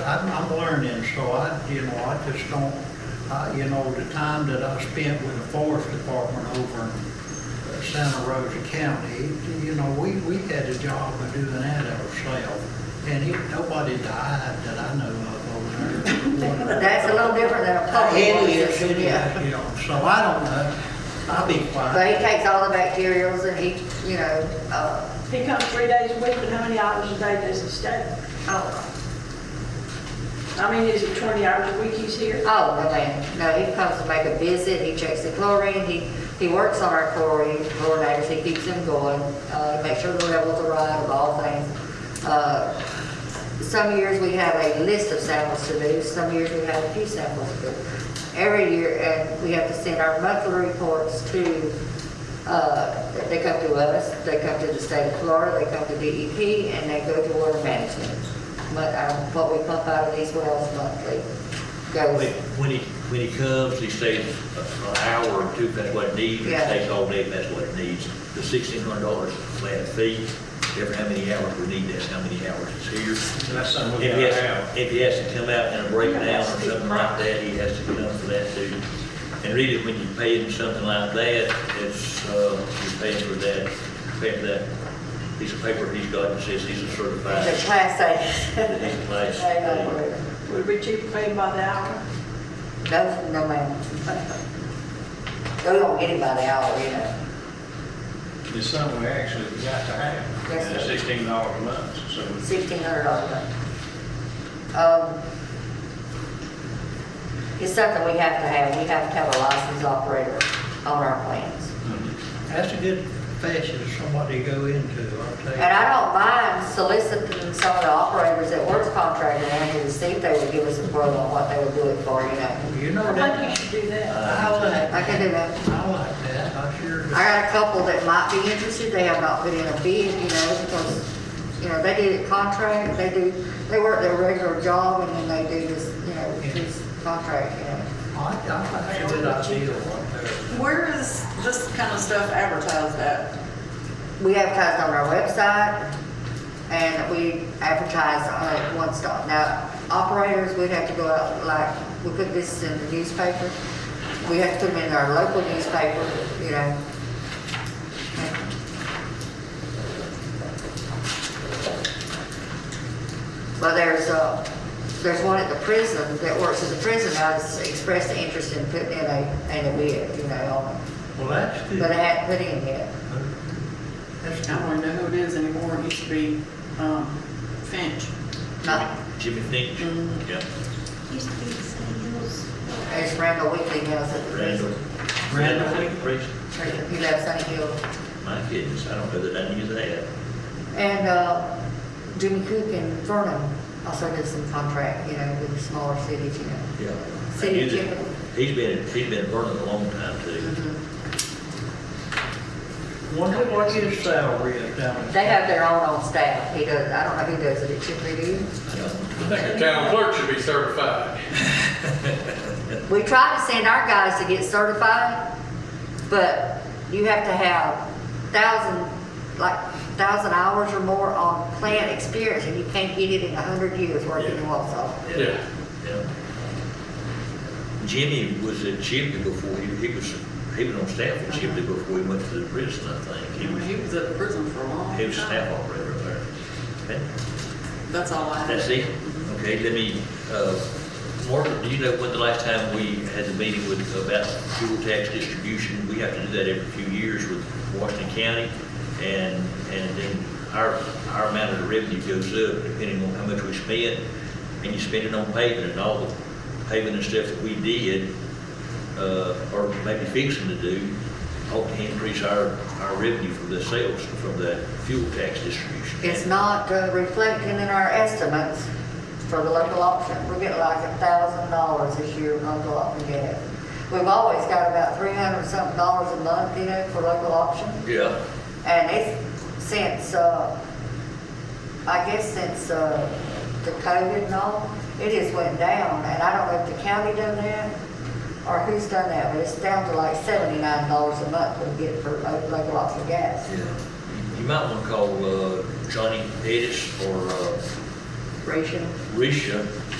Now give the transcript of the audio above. I'm, I'm learning, so I, you know, I just don't, I, you know, the time that I spent with the forest department over in uh, Santa Rosa County, you know, we, we had a job of doing that ourselves. And it, nobody died that I know of over there. But that's a little different than a public water It is, system, it is, yeah. you know, so I don't know. I'll be So he quiet. takes all the bacterials and he, you know, uh, He comes three days a week, but how many hours a day does he stay? oh, I mean, is it 20 hours a week he's here? oh, no, ma'am. No, he comes to make a visit, he checks the chlorine, he, he works on our chlorine, chlorinators, he keeps them going, uh, make sure the levels are right of all things. Uh, Some years we have a list of samples to do, some years we have a few samples to do. Every year, and we have to send our monthly reports to, uh, they come to us, they come to the state of Florida, they come to DEP, and they go to water management. But um, what we pump out of these wells monthly When goes, when he, when he comes, he stays a- an hour or two, if that's what it needs, he Yeah. stays all day, if that's what it needs. The sixteen hundred dollars flat fee, every how many hours we need, that's how many hours it's here. And that's something we If he gotta has, have. if he has to come out in a breakdown or something like that, he has to come for that too. And really, when you pay him something like that, it's, uh, you're paying for that, paying for that piece of paper he's got that says he's a certified. it's a class A. that he's a class They don't worry. A. Would it be cheaper for him by the hour? No, no, ma'am. They don't get it by the hour, you know. It's something we actually got to have. Yes, And it's sir. sixteen dollars a month, so sixteen hundred dollars. Um, it's something we have to have, we have to have a licensed operator on our plans. That's a good profession for somebody to go into, I'll tell you. And I don't mind soliciting some of the operators that works contracting around here to see if they would give us a quote on what they would do it for, you know. You know I that, think you should do that. I like, I can do that. I like that, I sure do. I got a couple that might be interested, they have not put in a bid, you know, because, you know, they did it contract, they do, they work their regular job and then they do this, you know, this contract, you know. I, I think it's a good idea right there. Where is this kind of stuff advertised at? We advertise on our website and we advertise on it one stop. Now, operators, we'd have to go out, like, we put this in the newspaper. We have to put them in our local newspaper, you know. Well, there's, uh, there's one at the prison that works at the prison now that's expressed an interest in putting in a, in a bid, you know, Well, that's good. but it hadn't put in yet. That's I don't good. even know who it is anymore. It used to be um, Finch. Not, Jimmy Finch, yeah, Used to be the same hills. It's Randall Weekly House at the Randall. prison. Randall, Priest, He left Sunny Hill. my goodness, I don't know that I knew that. And uh, Jimmy Cook and Vernon also did some contract, you know, with the smaller cities, you know. Yeah. I City knew of that. Kimball. He's been, he's been burning a long time too. Mm-hmm. wonder what his salary is down there. They have their own on staff. He does, I don't know if he does it at Chipley, do you? I don't- I think the town clerk should be certified. We try to send our guys to get certified, but you have to have thousand, like, thousand hours or more on plant experience, and you can't get it in a hundred years working in Walsall. Yeah. yeah. Jimmy was at Chipley before, he, he was, he was on staff at Chipley before he went to the prison, I think. He was, He was at the prison for a long he was time. staff operator there. Okay, That's all I That's have. it? Okay, let me, uh, Margaret, do you know when the last time we had the meeting with, about fuel tax distribution? We have to do that every few years with Washington County, and, and then our, our amount of the revenue goes up depending on how much we spend, and you spend it on paving and all the paving and stuff that we did, uh, or maybe fixing to do, ought to increase our, our revenue from the sales, from the fuel tax distribution. It's not uh, reflecting in our estimates for the local option. We're getting like a thousand dollars this year in local option gas. We've always got about three hundred something dollars a month, you know, for local option. Yeah. And it's since, uh, I guess since, uh, the COVID and all, it has went down. And I don't know if the county done that or who's done that, but it's down to like seventy-nine dollars a month we get for lo- local option gas. Yeah, You- you might want to call uh, Johnny Pettis or uh, ratio. Risha